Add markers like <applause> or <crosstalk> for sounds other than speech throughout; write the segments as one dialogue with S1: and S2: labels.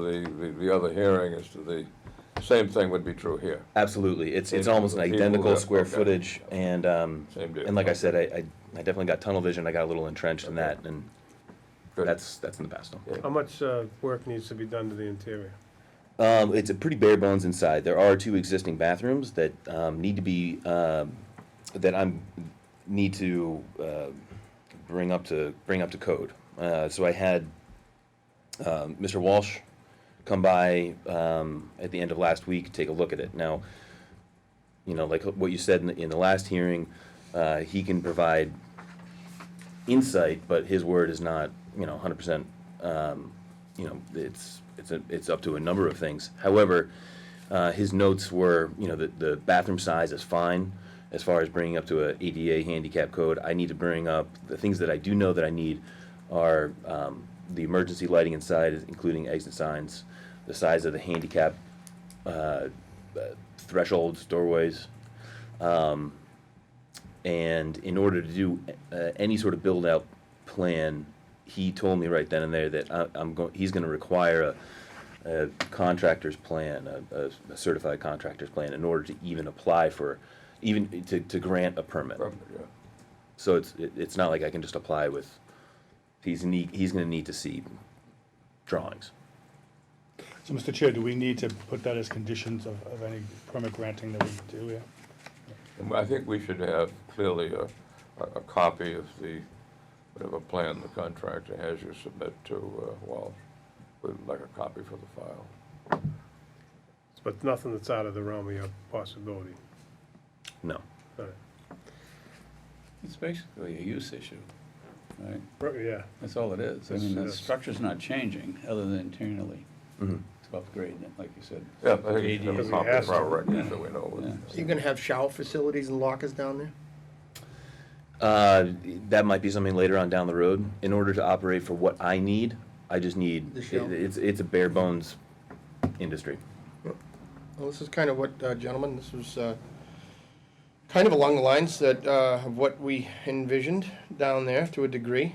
S1: The, the, the other hearing is to the, same thing would be true here.
S2: Absolutely, it's, it's
S1: Yeah,
S2: almost an
S1: people
S2: identical
S1: that-
S2: square
S1: okay.
S2: footage, and, um,
S1: Same deal,
S2: and like I
S1: okay.
S2: said, I, I I definitely got tunnel vision, I got a little entrenched in
S1: Okay.
S2: that, and
S1: Good.
S2: that's, that's in the past now.
S1: Yeah.
S3: How much uh, work needs to be done to the interior?
S2: Um, it's a pretty bare bones inside, there are two existing bathrooms that, um, need to be, um, that I'm, need to, uh, bring up to, bring up to code. Uh, so I had, um, Mr. Walsh come by, um, at the end of last week, take a look at it. Now, you know, like what you said in the, in the last hearing, uh, he can provide insight, but his word is not, you know, hundred percent, um, you know, it's, it's, a- it's up to a number of things. However, uh, his notes were, you know, the, the bathroom size is fine as far as bringing up to a ADA handicap code. I need to bring up, the things that I do know that I need are, um, the emergency lighting inside, including exit signs, the size of the handicap, uh, uh, thresholds, doorways. Um, and in order to do uh, any sort of build out plan, he told me right then and there that I, I'm going. He's going to require a, a contractor's plan, a, a, a certified contractor's plan, in order to even apply for, even to, to grant a permit.
S1: Probably, yeah.
S2: So it's it, it's not like I can just apply with. He's need, he's going to need to see drawings.
S4: So, Mr. Chair, do we need to put that as conditions of, of any permit granting that we do here?
S1: And I think we should have clearly a, a, a copy of the, whatever plan the contractor has you submit to uh, Walsh, with like a copy for the file.
S3: But nothing that's out of the realm of your possibility. Uh,
S2: No.
S3: All right.
S5: It's basically a use issue, right?
S3: Right, Yeah,
S5: That's all it is. I mean, the
S3: Yes.
S5: structure's not changing, other than internally,
S2: Mhm.
S5: to upgrading it, like you said.
S1: Mm-hmm. Yeah, I think we should have
S3: Because
S1: a
S3: we
S1: copy
S3: asked
S1: for our
S3: him.
S1: records, so we know.
S5: Yeah.
S1: what-
S6: So you're gonna have shower facilities and lockers down there?
S2: Uh, that might be something later on down the road. In order to operate for what I need, I just need,
S6: The
S2: it-
S6: shell.
S2: it's, it's a bare bones industry.
S6: Well, this is kind of what, uh, gentlemen, this was, uh, kind of along the lines that, uh, of what we envisioned down there to a degree.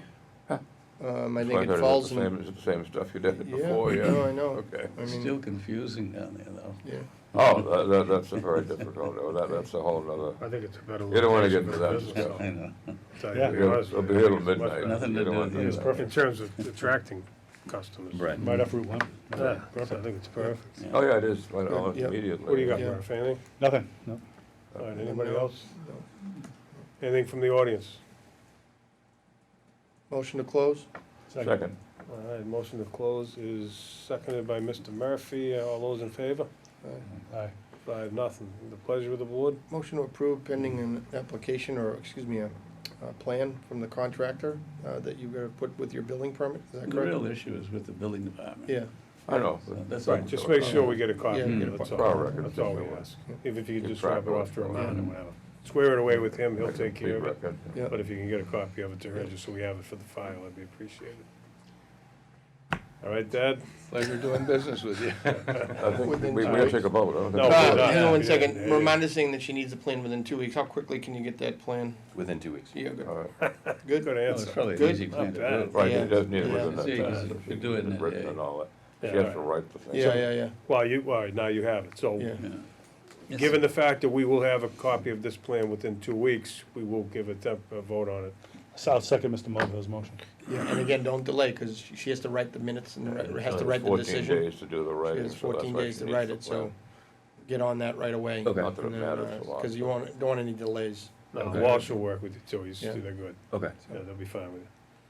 S6: Um, I
S1: So I heard
S6: think it
S1: it's
S6: falls
S1: the
S6: in.
S1: same- It's the same stuff you did
S6: Yeah,
S1: before, yeah.
S6: <laughs> no, I know.
S1: Okay.
S6: I mean,
S5: Still confusing down there, though.
S6: yeah.
S1: Oh, that, that, that's a very difficult, oh, that, that's a whole nother,
S3: I think it's a better.
S1: You don't wanna get into that
S3: location for the
S5: I
S3: business,
S5: know. <laughs>
S1: Oh,
S3: though. So,
S4: Yeah.
S3: to be honest
S1: it'll
S3: with
S1: be
S3: you,
S1: here till
S3: it's much
S1: midnight.
S3: better
S5: Nothing to
S1: You don't
S5: do
S1: want
S5: with
S1: that.
S5: you.
S3: In terms of attracting customers.
S2: Right.
S4: Right off Route One?
S3: Mm. Yeah, so I
S4: Perfect.
S3: think it's perfect.
S1: Oh, yeah, it is, right, oh,
S6: Yeah.
S1: immediately.
S3: What do you got,
S6: Yeah.
S3: Murph, anything?
S4: Nothing, no.
S1: Uh,
S3: All right, anybody
S6: No.
S3: else? Anything from the audience?
S6: Motion to close?
S1: Second.
S3: All right, motion to close is seconded by Mr. Murphy. All those in favor?
S4: Aye.
S3: Five, nothing. The pleasure of the board?
S6: Motion to approve pending an application or, excuse me, a, a plan from the contractor, uh, that you gotta put with your building permit, is that
S5: The
S6: correct?
S5: real issue is with the building department.
S6: Yeah,
S1: I know.
S5: So That's all.
S3: Right, just make sure we get a copy,
S6: Yeah,
S3: of
S6: get
S3: it,
S6: a
S3: that's
S1: copy. Our
S3: all,
S1: records,
S3: that's all we
S1: yeah.
S3: ask. If if you
S1: Keep
S3: could just
S1: track
S3: wrap it
S1: of
S3: off
S1: what's
S3: to a
S1: going
S3: mountain
S6: on.
S3: and whatever. Square it away with him, he'll take care of it.
S1: Record.
S6: yeah.
S3: But if you can get a copy of it to her, just so we have it for the file, that'd be appreciated. All right, Dad?
S5: Pleasure doing business with
S3: <laughs>
S5: you.
S1: I think we,
S6: Within
S1: we
S6: two
S1: gotta
S6: weeks.
S1: take a vote, I don't think. we
S3: No, Oh, we're
S6: Uh,
S1: do that.
S3: not.
S6: hang on one
S3: Yeah,
S6: second,
S3: yeah, yeah.
S6: remind us saying that she needs a plan within two weeks, how quickly can you get that plan?
S2: Within two weeks.
S6: Yeah, good,
S1: All right.
S6: good.
S3: Good
S5: It's
S3: answer.
S5: probably an
S6: Good.
S5: easy plan to
S3: Not
S5: do.
S3: bad.
S1: uh, Right,
S6: Yeah.
S1: it does need
S6: Yeah.
S1: within that
S5: See,
S1: time.
S5: you
S1: so
S5: could
S1: she-
S5: do it in a
S1: written
S5: day.
S1: and all that.
S3: Yeah,
S1: She has to
S3: all
S1: write the thing.
S6: uh, Yeah, yeah, yeah,
S3: Well, you, all right, now you have it, so.
S6: yeah.
S5: Yeah. Yes.
S3: Given the fact that we will have a copy of this plan within two weeks, we will give a temp, a vote on it.
S4: So I'll second Mr. Mulvihill's motion.
S6: And again, don't delay, because she has to write the minutes and ri- has to write the
S1: Fourteen
S6: decision.
S1: days to do the
S6: She
S1: writing. so
S6: has
S1: that's
S6: fourteen
S1: why
S6: days
S1: she
S6: to
S1: needs
S6: write
S1: the
S6: it, so
S1: plan.
S6: get on that right away.
S2: Okay.
S1: Not that it matters a lot.
S6: Because you won't, don't want any delays.
S3: No,
S2: Okay.
S3: Walsh will work with you, too, he's,
S6: Yeah.
S3: they're good,
S2: Okay.
S3: yeah, they'll be fine with you.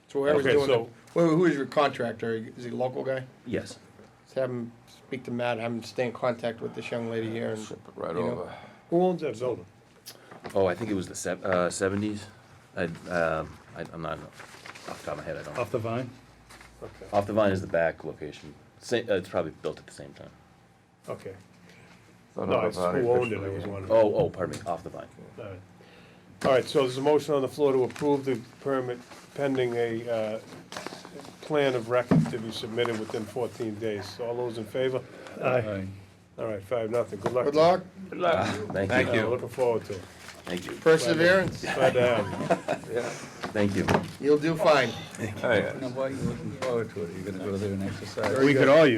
S6: So whoever's
S3: Okay,
S6: doing it,
S3: so-
S6: who who is your contractor? Is he a local guy?
S2: Yes.
S6: Just have him speak to Matt, have him stay in contact with this young lady here. and-
S1: Flip it Right
S6: you know.
S1: over.
S3: Who owns that building?
S2: Oh, I think it was the sev- uh, seventies. I, um, I, I'm not, off the top of my head, I don't.
S4: Off the vine?
S3: Okay,
S2: Off the vine is the back location. Sa- uh, it's probably built at the same time.
S3: okay.
S1: Thought
S3: No,
S1: about
S3: it's
S1: that
S3: who owned it, I
S1: officially.
S3: was wondering.
S2: Oh, oh, pardon me, off the vine.
S3: All right. All right, so there's a motion on the floor to approve the permit pending a uh, plan of record to be submitted within 14 days. All those in favor?
S5: Aye.
S3: All right, five, nothing. Good luck.
S6: Good luck,
S3: Good luck.
S2: Thank
S3: Uh,
S2: you,
S3: Looking forward to it.
S2: thank you,
S6: perseverance,
S3: Glad to have you.
S2: thank you.
S6: you'll do fine.
S1: Oh, Yeah.
S5: Now, why are you looking forward to it? Are you gonna go there and exercise?
S3: We could all use